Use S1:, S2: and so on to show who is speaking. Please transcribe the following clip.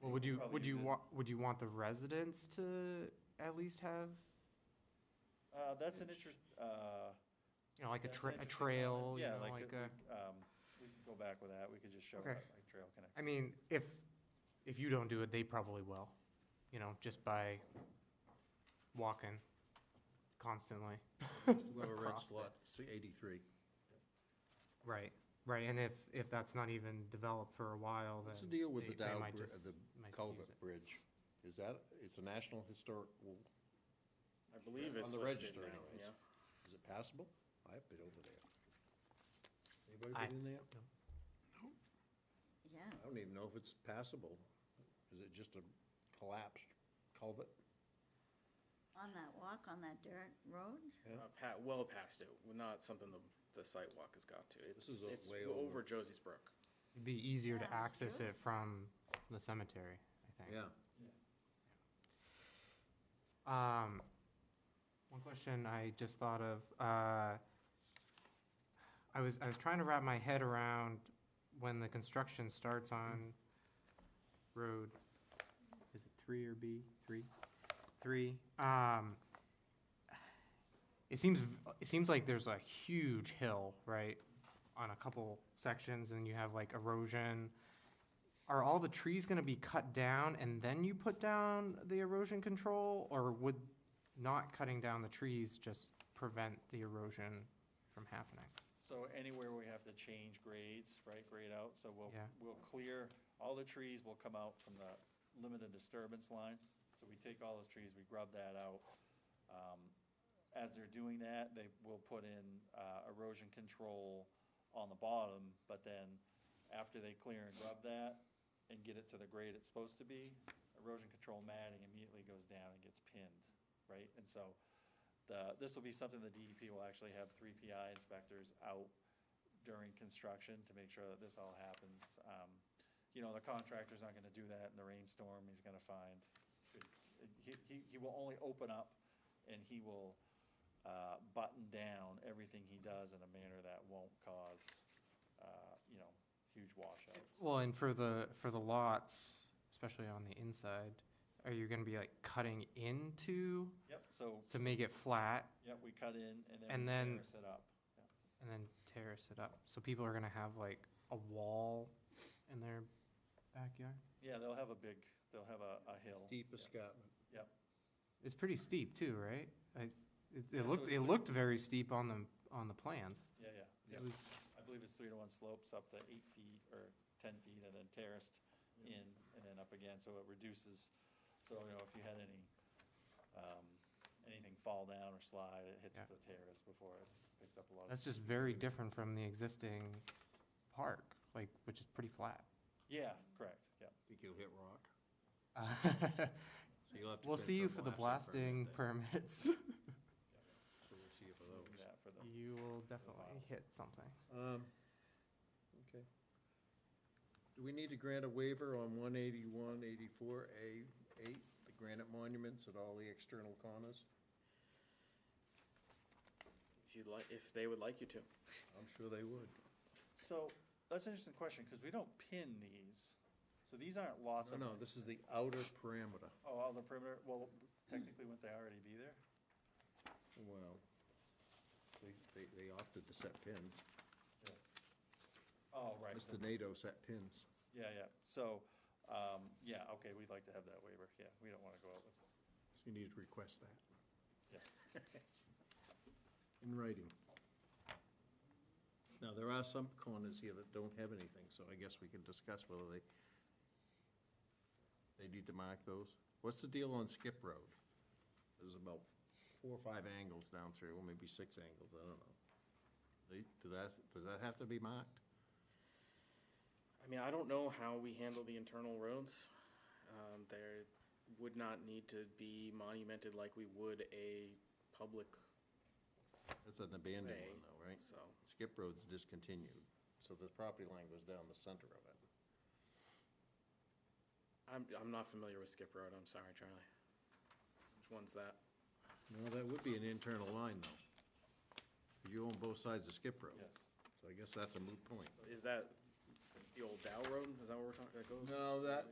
S1: Well, would you,
S2: probably
S1: would you
S2: use it.
S1: want, would you want the residents to at least have,
S2: Uh, that's an interest, uh.
S1: you know, like a
S2: that's an
S1: tra- a
S2: interesting
S1: trail,
S2: comment.
S1: you
S2: Yeah,
S1: know, like a,
S2: we- Um, we can go back with that, we could just show
S1: Okay.
S2: that, like trail connection.
S1: I mean, if, if you don't do it, they probably will, you know, just by walking constantly.
S3: We'll have a red
S1: across it.
S3: slot, see eighty-three.
S1: Right, right, and if, if that's not even developed for a while, then.
S3: What's the deal with
S1: they-
S3: the
S1: they
S3: Dow,
S1: might
S3: Bri-
S1: just-
S3: the
S1: might use
S3: culvert
S1: it.
S3: bridge? Is that, it's a national historic, well,
S2: I believe
S3: on
S2: it's
S3: the
S2: listed
S3: register
S2: now,
S3: anyways.
S2: yeah.
S3: Is it passable? I've been over there. Anybody
S1: I-
S3: been in there?
S1: no.
S4: Yeah,
S3: I don't even know if it's passable. Is it just a collapsed culvert?
S4: on that walk, on that dirt road,
S3: Yeah.
S5: Uh, pa- well past it, Well, not something the, the sidewalk has got to. It's,
S3: is a
S5: it's
S3: way over.
S5: over Josie's Brook.
S1: It'd be easier to
S4: Yeah, that's
S1: access
S4: true.
S1: it from the cemetery, I think.
S3: Yeah.
S1: Um, one question I just thought of, uh, I was, I was trying to wrap my head around when the construction starts on road, is it three or B, three? Three, um, it seems, v- it seems like there's a huge hill, right, on a couple sections, and you have like erosion. Are all the trees gonna be cut down and then you put down the erosion control, or would not cutting down the trees just prevent the erosion from happening?
S2: So anywhere we have to change grades, right, grade out, so we'll,
S1: Yeah.
S2: we'll clear, all the trees will come out from the limited disturbance line. So we take all those trees, we grub that out. Um, As they're doing that, they will put in uh, erosion control on the bottom, but then after they clear and grub that and get it to the grade it's supposed to be, erosion control matting immediately goes down and gets pinned, right? And so the, this will be something the DEP will actually have three PI inspectors out during construction to make sure that this all happens. Um, You know, the contractor's not gonna do that in the rainstorm, he's gonna find, he, he, he will only open up and he will, uh, button down everything he does in a manner that won't cause, uh, you know, huge washouts.
S1: Well, and for the, for the lots, especially on the inside, are you gonna be like cutting into
S2: Yep, so,
S1: to make it flat
S2: yep, we cut in and then
S1: And
S2: we
S1: then-
S2: terrace it up. Yeah.
S1: and then terrace it up? So people are gonna have like a wall in their backyard?
S2: Yeah, they'll have a big, they'll have a, a hill.
S3: Deep
S2: Yeah.
S3: escarpment.
S2: Yep.
S1: It's pretty steep too, right? I, it, it
S2: Yeah, so
S1: looked,
S2: it's
S1: it
S2: the-
S1: looked very steep on the, on the plans.
S2: Yeah, yeah.
S1: It was,
S2: I believe it's three to one slopes up to eight feet or ten feet and then terraced in and then up again, so it reduces. So, you know, if you had any, um, anything fall down or slide, it hits
S1: Yeah.
S2: the terrace before it picks up a lot of.
S1: that's just very different from the existing park, like, which is pretty flat.
S2: Yeah, correct, yeah.
S3: Think you'll hit rock.
S1: Uh,
S3: So you'll have to.
S1: We'll
S3: bid
S1: see
S3: for
S1: you
S3: a
S1: for the
S3: permit
S1: blasting
S3: then.
S1: permits.
S3: So We'll see you for
S2: we'll do
S3: those.
S2: that for the-
S1: You will definitely hit something.
S3: Um, okay. Do we need to grant a waiver on one eighty-one, eighty-four, A, eight, the granite monuments at all the external corners?
S5: If you'd like, if they would like you to.
S3: I'm sure they would.
S2: So, that's an interesting question, cause we don't pin these, so these aren't lots
S3: No,
S2: of.
S3: no, this is the outer parameter.
S2: Oh, all the perimeter, well, technically, wouldn't they already be there?
S3: Well, they, they, they opted to set pins.
S2: Oh, right.
S3: Mr. NATO set pins.
S2: Yeah, yeah, so, um, yeah, okay, we'd like to have that waiver, yeah, we don't wanna go out with,
S3: So you need to request that
S2: yes.
S3: in writing. Now, there are some corners here that don't have anything, so I guess we can discuss whether they, they need to mark those. What's the deal on Skip Road? There's about four or five angles down through, or maybe six angles, I don't know. They, do that, does that have to be marked?
S5: I mean, I don't know how we handle the internal roads. Um, there would not need to be monumented like we would a public
S3: That's an abandoned
S5: way,
S3: one though, right?
S5: so.
S3: Skip Road's discontinued, so the property line goes down the center of it.
S5: I'm, I'm not familiar with Skip Road, I'm sorry, Charlie. Which one's that?
S3: No, that would be an internal line, though. You own both sides of Skip Road.
S2: Yes.
S3: So I guess that's a moot point.
S5: Is that the old Dow Road? Is that where we're talking, that goes?
S3: No, that,